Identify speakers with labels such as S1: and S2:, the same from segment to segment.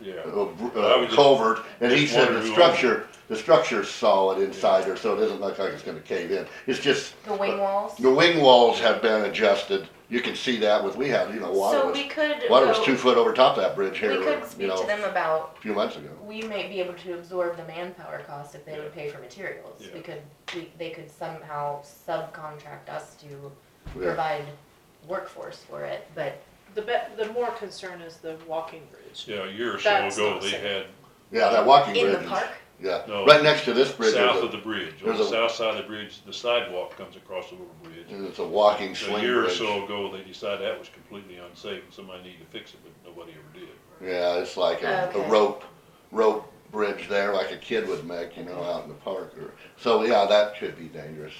S1: yeah.
S2: uh, br-
S1: I
S2: uh,
S1: was just-
S2: culvert, and he
S1: just
S2: said the
S1: wondering who
S2: structure, the structure's solid inside there, so it doesn't look like it's gonna cave in. It's just,
S3: The wing walls?
S2: the wing walls have been adjusted, you can see that with, we had, you know, water
S3: So
S2: was,
S3: we could
S2: water was
S3: go-
S2: two foot over top of that bridge
S3: We
S2: here,
S3: could
S2: you
S3: speak
S2: know,
S3: to them
S2: a
S3: about,
S2: few months ago.
S3: we may be able to absorb the manpower cost if they would pay for materials.
S1: Yeah.
S3: We could, we, they could somehow subcontract us to
S2: Yeah.
S3: provide workforce for it, but
S4: The be, the more concern is the walking bridge.
S1: Yeah, a year or so
S4: That's
S1: ago,
S4: not
S1: they
S4: safe.
S1: had
S2: Yeah, that walking
S3: in
S2: bridge
S3: the
S2: is,
S3: park,
S2: yeah,
S1: No.
S2: right next to this bridge is
S1: south of
S2: a,
S1: the bridge, on
S2: there's
S1: the
S2: a-
S1: south side of the bridge, the sidewalk comes across the little bridge.
S2: is a walking
S1: A
S2: swing
S1: year or
S2: bridge.
S1: so ago, they decided that was completely unsafe, and somebody needed to fix it, but nobody ever did.
S2: Yeah, it's like a, a
S3: Okay.
S2: rope, rope bridge there, like a kid would make, you know, out in the park or, so yeah, that could be dangerous.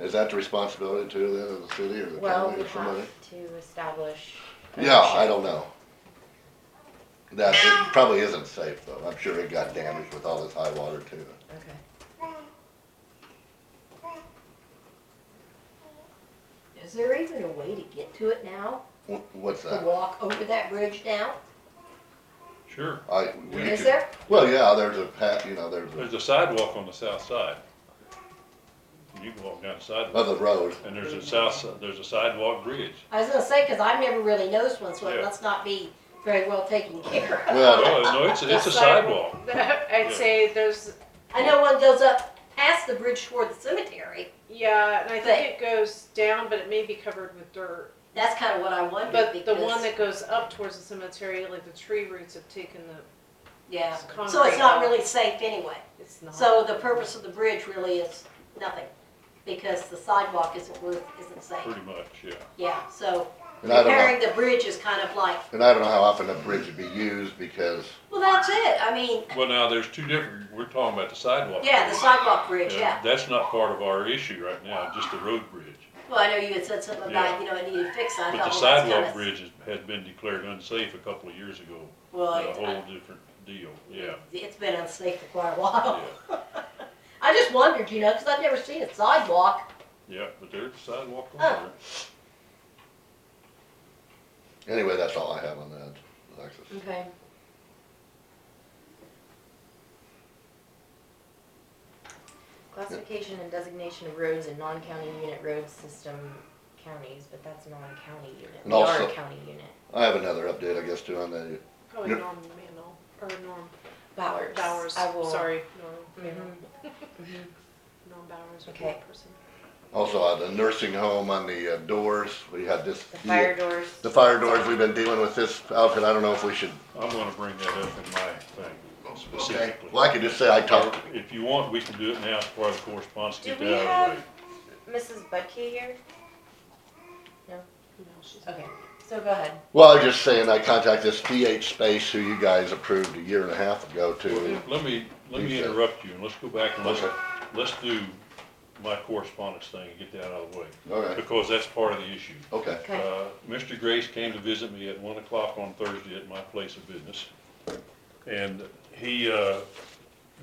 S2: Is that the responsibility too then of the city or the
S3: well,
S2: county
S3: we
S2: or somebody?
S3: have to establish.
S2: Yeah, I don't know. That, it probably isn't safe though. I'm sure it got damaged with all this high water too.
S3: Okay.
S5: Is there even a way to get to it now?
S2: Wh- What's
S5: To
S2: that?
S5: walk over that bridge now?
S1: Sure,
S2: I, we
S5: Is
S2: could-
S5: there?
S2: Well, yeah, there's a path, you know, there's
S1: there's
S2: a,
S1: a sidewalk on the south side. You can walk down the sidewalk,
S2: of the road.
S1: and there's a south, si- there's a sidewalk bridge.
S5: I was gonna say, cause I've never really noticed one, so
S1: Yeah.
S5: it must not be very well taken care of.
S2: Well,
S1: No, no, it's, it's a sidewalk.
S4: I'd say there's,
S5: I know one goes up past the bridge toward the cemetery.
S4: yeah, and I
S5: But-
S4: think it goes down, but it may be covered with dirt.
S5: That's kinda what I wondered
S4: But the one
S5: because-
S4: that goes up towards the cemetery, like the tree roots have taken the,
S5: Yeah,
S4: it's
S5: so
S4: concrete Uh-huh.
S5: it's not
S4: now.
S5: really safe anyway.
S4: it's not.
S5: So the purpose of the bridge really is nothing, because the sidewalk isn't worth, isn't safe.
S1: Pretty much, yeah.
S5: Yeah, so
S2: and I don't know,
S5: repairing the bridge is kind of like,
S2: and I don't know how often a bridge would be used because
S5: well, that's it, I mean,
S1: Well, now, there's two different, we're talking about the sidewalk.
S5: yeah, the sidewalk bridge,
S1: And
S5: yeah.
S1: That's not part of our issue right now, just the road bridge.
S5: Well, I know you had said something
S1: Yeah.
S5: about, you know, it needed fixing, I
S1: But the
S5: thought, well, that's
S1: sidewalk
S5: kinda.
S1: bridge is- had been declared unsafe a couple of years ago,
S5: Well,
S1: a
S5: it's,
S1: whole
S5: I-
S1: different deal, yeah,
S5: it's been unsafe for quite a while.
S1: yeah,
S5: I just wondered, you know, because I've never seen a sidewalk.
S1: yeah, but there's a sidewalk on
S5: Oh.
S1: there.
S2: Anyway, that's all I have on that, Alexis.
S3: Okay. Classification and designation of roads in non-county unit road system counties, but that's not a county unit.
S2: And
S3: We are a
S2: also-
S3: county unit.
S2: I have another update, I guess, too, on the,
S4: Probably
S2: Yep.
S4: Norm Manal, or Norm
S3: Bowers.
S4: Bowers,
S3: I will-
S4: sorry, Norm Manal,
S3: Mhm, mhm.
S4: Norm Bowers was the
S3: Okay.
S4: person.
S2: also on the nursing home on the uh, doors, we had this.
S3: The fire doors.
S2: The fire doors, we've been dealing with this outfit, I don't know if we should.
S1: I'm gonna bring that up in my thing specifically.
S2: Well, I could just say I talked,
S1: If you want, we can do it now as part of the correspondence,
S3: Do
S1: get
S3: we
S1: that out of the way.
S3: have Mrs. Budke here?
S4: No, she's.
S3: Okay, so go ahead.
S2: well, I was just saying I contacted this PH Space who you guys approved a year and a half ago to.
S1: Let me, let
S2: You
S1: me
S2: said-
S1: interrupt you, and let's go back and let's,
S2: Okay.
S1: let's do my correspondence thing and get that out of the way,
S2: Okay,
S1: because that's part of the issue.
S2: okay,
S3: Okay,
S1: Uh, Mr. Grace came to visit me at one o'clock on Thursday at my place of business. And he, uh,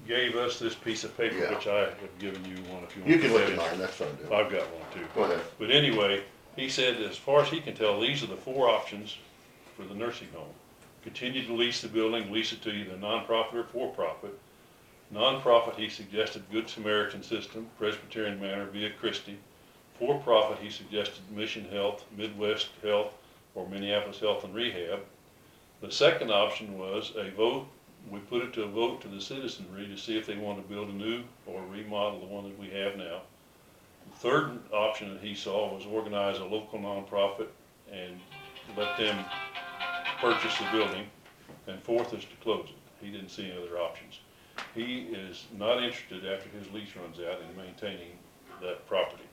S1: gave us this piece of paper,
S2: Yeah.
S1: which I have given you one if you want.
S2: you can
S1: to
S2: look
S1: have
S2: at
S1: it.
S2: mine, that's fine, dude.
S1: I've got one too.
S2: Go ahead,
S1: But anyway, he said, as far as he can tell, these are the four options for the nursing home. Continue to lease the building, lease it to either nonprofit or for-profit. Nonprofit, he suggested Good Samaritan System, Presbyterian Manor via Christie. For-profit, he suggested Mission Health, Midwest Health, or Minneapolis Health and Rehab. The second option was a vote, we put it to a vote to the citizenry to see if they want to build a new or remodel the one that we have now. The Third option that he saw was organize a local nonprofit and let them purchase the building. And fourth is to close it. He didn't see any other options. He is not interested after his lease runs out in maintaining that property.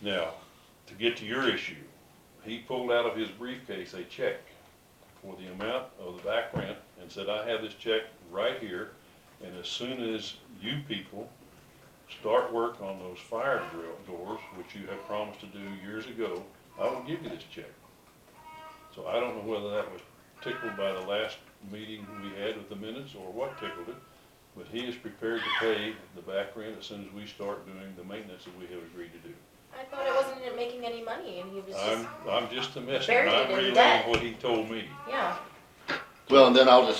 S1: Now, to get to your issue, he pulled out of his briefcase a check for the amount of the back rent and said, I have this check right here. And as soon as you people start work on those fire drill doors, which you have promised to do years ago, I will give you this check. So I don't know whether that was tickled by the last meeting we had with the minutes or what tickled it, but he is prepared to pay the back rent as soon as we start doing the maintenance that we have agreed to do.
S3: I thought it wasn't making any money and he was
S1: I'm,
S3: just,
S1: I'm just a messenger,
S3: Buried
S1: I'm
S3: in
S1: relaying
S3: debt.
S1: what he told me.
S3: yeah.
S2: well, and then I'll just